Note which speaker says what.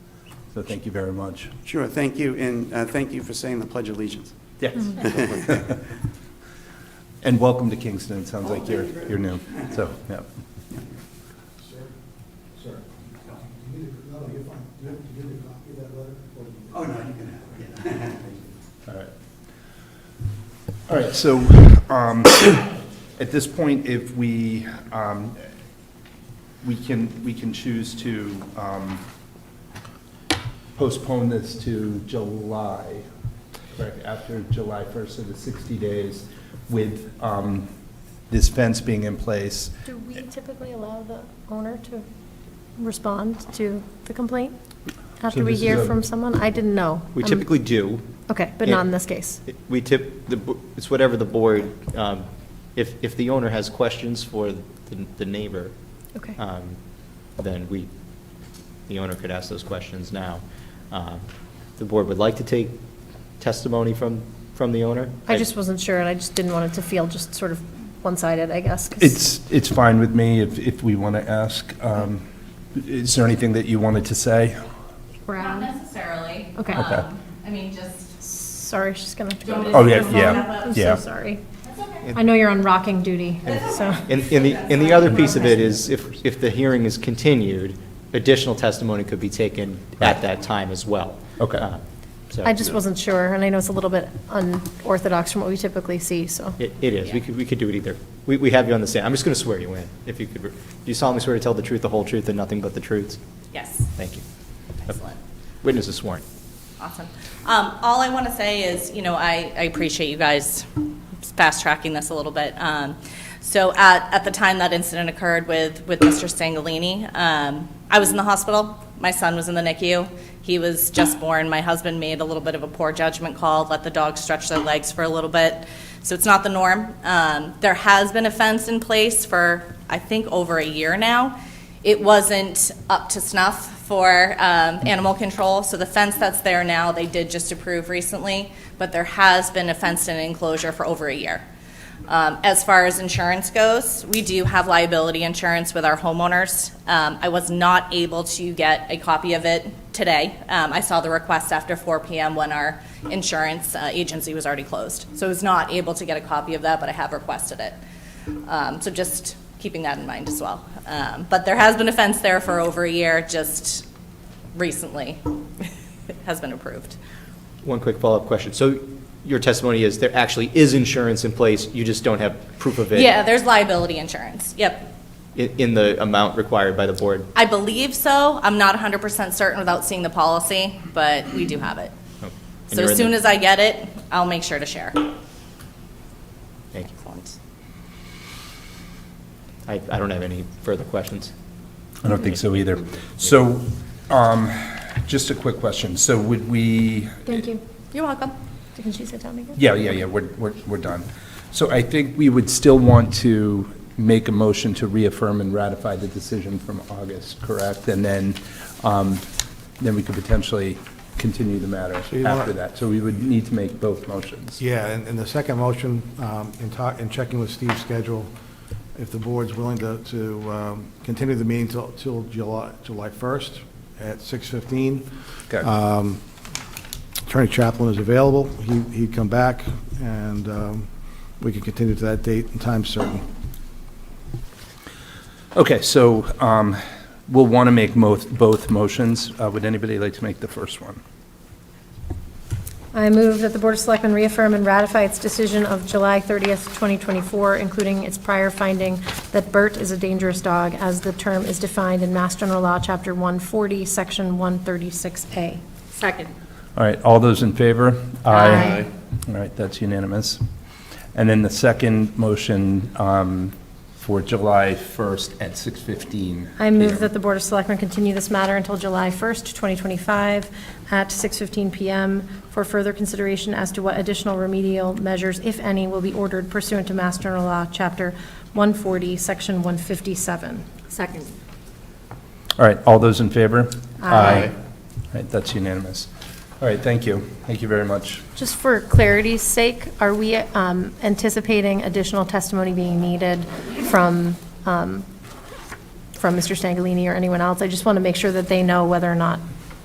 Speaker 1: So thank you very much.
Speaker 2: Sure, thank you, and uh, thank you for saying the Pledge of Allegiance.
Speaker 1: Yes. And welcome to Kingston, it
Speaker 3: Oh,
Speaker 1: sounds like you're, you're new, so, yeah.
Speaker 3: Sir? Sir? Do you need a, no, you're fine. Do you have- do you need a copy of that letter? Or do you-
Speaker 2: Oh, no, you can have it.
Speaker 1: All right. All right, so um, at this point, if we, um, we can, we can choose to um, postpone this to July, correct, after July 1st, so the 60 days with um, this fence being in place.
Speaker 4: Do we typically allow the owner to respond to the complaint after we
Speaker 1: this is
Speaker 4: hear
Speaker 1: a-
Speaker 4: from someone? I didn't know.
Speaker 5: We
Speaker 4: Um,
Speaker 5: typically do.
Speaker 4: Okay, but not in this case.
Speaker 5: It- We tip, the bo- it's whatever the board, um, if, if the owner has questions for the the neighbor,
Speaker 4: Okay.
Speaker 5: um, then we, the owner could ask those questions now. Uh, The board would like to take testimony from, from the owner?
Speaker 4: I just wasn't sure, and I just didn't want it to feel just sort of one-sided, I guess. 'cause-
Speaker 1: It's, it's fine with me if, if we want to ask. um, Is there anything that you wanted to say?
Speaker 4: Brown.
Speaker 6: Not necessarily.
Speaker 4: Okay.
Speaker 6: Um,
Speaker 1: Okay.
Speaker 6: I mean, just,
Speaker 4: Sorry, she's gonna have to go.
Speaker 6: Don't
Speaker 4: to-
Speaker 6: Oh, yeah,
Speaker 1: yeah,
Speaker 4: I'm
Speaker 1: yeah.
Speaker 4: so sorry.
Speaker 6: that's okay.
Speaker 4: I know you're on rocking duty, so.
Speaker 5: And, and the, and the other piece of it is, if, if the hearing is continued, additional testimony could be taken at that time as well.
Speaker 1: Okay.
Speaker 5: Uh, so-
Speaker 4: I just wasn't sure, and I know it's a little bit unorthodox from what we typically see, so.
Speaker 5: It, it is. We could, we could do it either. We, we have you on the stand. I'm just going to swear you in. If you could, do you solemnly swear to tell the truth, the whole truth, and nothing but the truth?
Speaker 6: Yes.
Speaker 5: Thank you.
Speaker 6: Excellent.
Speaker 5: Witness is sworn.
Speaker 6: Awesome. Um, all I want to say is, you know, I, I appreciate you guys fast tracking this a little bit. Um, so at, at the time that incident occurred with, with Mr. Stangalini, um, I was in the hospital. My son was in the NICU. He was just born. My husband made a little bit of a poor judgment call, let the dog stretch their legs for a little bit. So it's not the norm. Um, there has been a fence in place for, I think, over a year now. it wasn't up to snuff for um, animal control, so the fence that's there now, they did just approve recently, but there has been a fenced-in enclosure for over a year. Um, As far as insurance goes, we do have liability insurance with our homeowners. Um, I was not able to get a copy of it today. Um, I saw the request after 4 PM when our insurance uh, agency was already closed. So I was not able to get a copy of that, but I have requested it. Um, So just keeping that in mind as well. Um, But there has been a fence there for over a year, just recently It has been approved.
Speaker 5: One quick follow-up question. So your testimony is there actually is insurance in place, you just don't have proof of it?
Speaker 6: Yeah, there's liability insurance, yep.
Speaker 5: i- In the amount required by the board?
Speaker 6: I believe so, I'm not 100% certain without seeing the policy, but we do have it.
Speaker 5: And
Speaker 6: So
Speaker 5: you're in
Speaker 6: as soon
Speaker 5: the-
Speaker 6: as I get it, I'll make sure to share.
Speaker 5: Thank you.
Speaker 6: Excellent.
Speaker 5: I, I don't have any further questions.
Speaker 1: I don't think so either. So, um, just a quick question. So would we,
Speaker 4: Thank you.
Speaker 6: You're welcome.
Speaker 4: Can she sit down again?
Speaker 1: yeah, yeah, yeah, we're, we're, we're done. So I think we would still want to make a motion to reaffirm and ratify the decision from August, correct? And then, um, then we could potentially continue the matter
Speaker 3: you want-
Speaker 1: after that. So we would need to make both motions.
Speaker 3: Yeah, and, and the second motion, um, in talk, in checking with Steve's schedule, if the board's willing to, to, um, continue the meeting till, till July, July first at six fifteen.
Speaker 1: Okay.
Speaker 3: uh, Attorney Chaplin is available. He, he'd come back and, um, we can continue to that date and time certain.
Speaker 1: Okay, so, um, we'll want to make mo- both motions. Uh, would anybody like to make the first one?
Speaker 4: I move that the Board of Selectmen reaffirm and ratify its decision of July 30th, 2024, including its prior finding that Bert is a dangerous dog, as the term is defined in Mass General Law, Chapter 140, Section 136A.
Speaker 6: Second.
Speaker 1: All right, all those in favor?
Speaker 4: Aye.
Speaker 1: All right, that's unanimous. And then the second motion um, for July 1st at 6:15.
Speaker 4: I move
Speaker 1: PM.
Speaker 4: that the Board of Selectmen continue this matter until July 1st, 2025, at 6:15 PM for further consideration as to what additional remedial measures, if any, will be ordered pursuant to Mass General Law, Chapter 140, Section 157.
Speaker 6: Second.
Speaker 1: All right, all those in favor?
Speaker 4: Aye.
Speaker 1: All right, that's unanimous. All right, thank you. Thank you very much.
Speaker 4: Just for clarity's sake, are we um, anticipating additional testimony being needed from, um, from Mr. Stangalini or anyone else? I just want to make sure that they know whether or not